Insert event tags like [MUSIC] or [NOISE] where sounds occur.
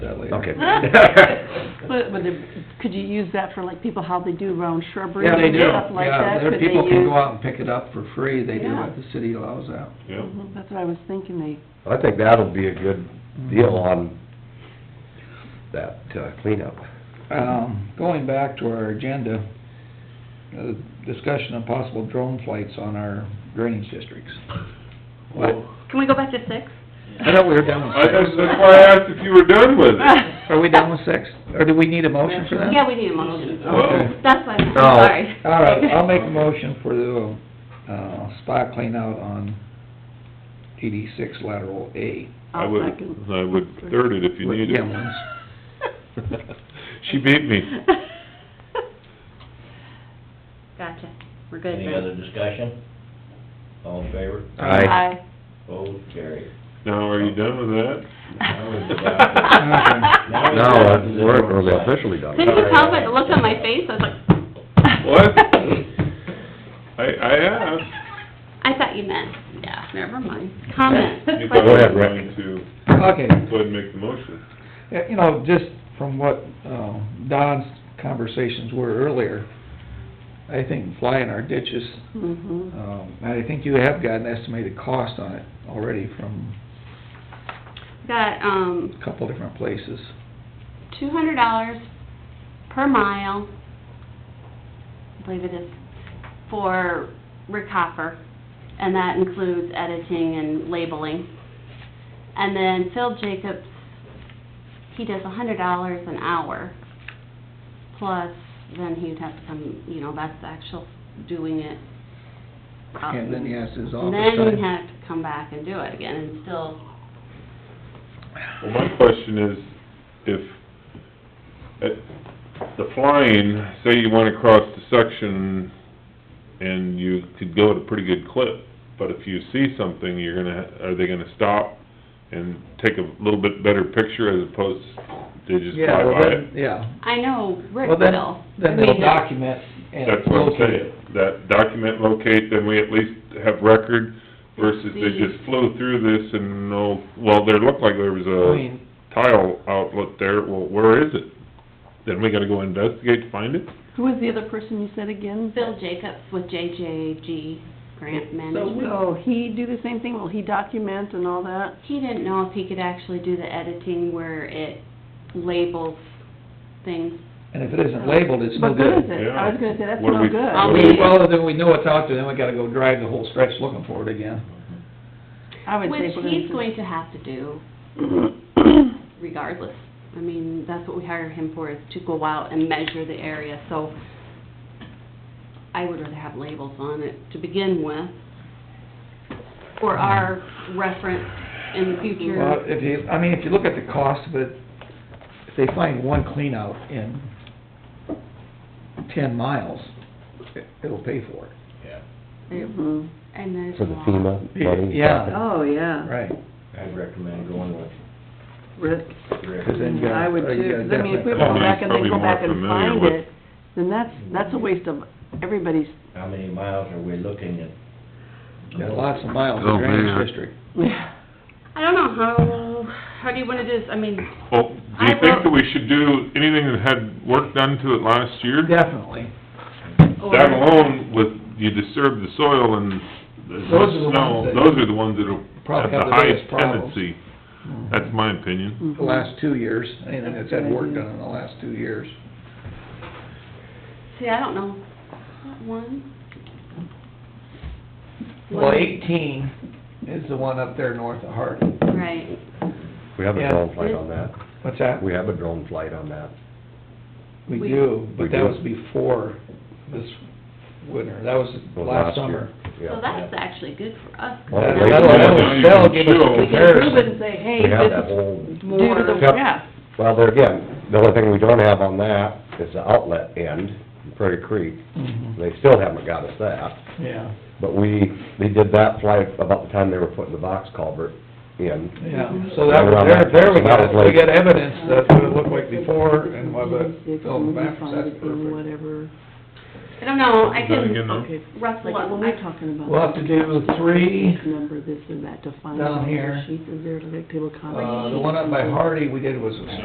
that later. [LAUGHS] Okay. But, but the- could you use that for like people, how they do around shrubbery Yeah, they and do, stuff like yeah, that? there, Could they people can use- go out and pick it up for free, they do Yeah. what the city allows out. Yeah, Mhm, That's what I was thinking, they, I think that'll be a good Mm-hmm. deal on that uh, cleanup. Um, going back to our agenda, uh, discussion of possible drone flights on our drainage districts. What? Can we go back to six? I thought we were done I, with that's six. that's why I asked if you were done with it. Are we done with six? Or do we need a motion for that? Yeah, we need a Oh. motion. Whoa. That's why, I'm No. Oh. sorry. All right, I'll make a motion for the, uh, spot cleanout on DD six lateral A. I I'll would, second. I would third it if you With needed it. Gilman's. She beat me. Gotcha, we're good Any then. other discussion? All in favor? Aye. Aye. Opposed, carried. Now, are you done with that? Now we're down to- Now, uh, we're, we're really officially done. Couldn't you tell by the look on my face, I was like... [LAUGHS] What? I, I asked. I thought you meant, yeah, never mind, comment. You thought I Go was ahead, Rick. going to Okay, go ahead and make the motion. Yeah, You know, just from what, uh, Don's conversations were earlier, I think flying our ditches, Mm-hmm. Mhm. um, and I think you have got an estimated cost on it already from Got, um, a couple different places. two hundred dollars per mile, I believe it is, for Rick Hopper, and that includes editing and labeling. And then Phil Jacobs, he does a hundred dollars an hour, plus then he'd have to come, you know, that's the actual doing it. And then he has his And office then he'd time. have to come back and do it again, and still, Well, my question is, if, at the flying, say you went across the section and you could go at a pretty good clip, but if you see something, you're gonna, are they gonna stop and take a little bit better picture as opposed to just Yeah, fly well by it? then, yeah. I know Rick Well, will. then, then I they'll mean, document and That's what I'm locate saying, it. that document locate, then we at least have record versus they just flew through this and no, well, there looked like there was I a mean, tile outlet there, well, where is it? Then we gotta go investigate to find it? Who was the other person you said again? Bill Jacobs with JJG Grant So Management. will Oh, he do the same thing? Will he document and all that? He didn't know if he could actually do the editing where it labels things. and if it isn't labeled, it's no What good is good. it? I was gonna say, that's What do no we- good. I'll Well, be- Well, then we know it's out there, then we gotta go drive the whole stretch looking for it again. I would Which say we're he's gonna going to have to do [COUGHS] say- regardless. I mean, that's what we hire him for, is to go out and measure the area, so I would rather have labels on it to begin with, or our reference in the Well, future. if you, I mean, if you look at the cost of it, if they find one cleanout in ten miles, it- it'll pay for it. Yeah, Mhm. And there's a For the uh, lot. FEMA money. Yeah. Oh, yeah, Right. I'd recommend going with Rick, Rick. Cause then you got. I would you too, got 'cause I mean, if we definite go Well, he's back and then probably go more back and familiar find with- it, then that's, that's a waste of everybody's, How many miles are we looking at? Got lots of miles in drainage district. I don't know, how, how do you wanna do this, I mean, Well, do I you think will- that we should do anything that had work done to it last year? Definitely. or... That alone with, you disturb the soil and Those are the the ones snow, that- those are the ones that'll, have Probably have the the biggest highest problems. tendency. That's my opinion. The last two years, anything that's had work done in the last two years. See, I don't know, That one? Well, eighteen is the one up there north of Harding. Right, We have a Yeah. drone flight on that. What's that? We have a drone flight on that. We We- do, We but that do. was before this winter, that was Well, last year. summer. Yeah. so that's actually good for us. Well, That- they- That'll, that'll, that'll give us a We we can prove it comparison. and say, hey, We have this that is whole, due to the, Yep. yeah. well, there again, the only thing we don't have on that is the outlet end, Prairie Creek. Mhm, They still haven't got us that. Yeah, But we, they did that flight about the time they were putting the box culvert in. yeah, so that, Right around there, that there we got, time, so that it. was we late. got evidence that what it looked like before and what it, Six, oh, when we maps, find that's it in perfect. Whatever, I don't know, I Then again, can no. okay, ruffle like up, when I we're talking about. We'll have to do three, Number this and that to find. Down out the here. Sheets, is there a table of contents? uh, the one up by Hardy we did was a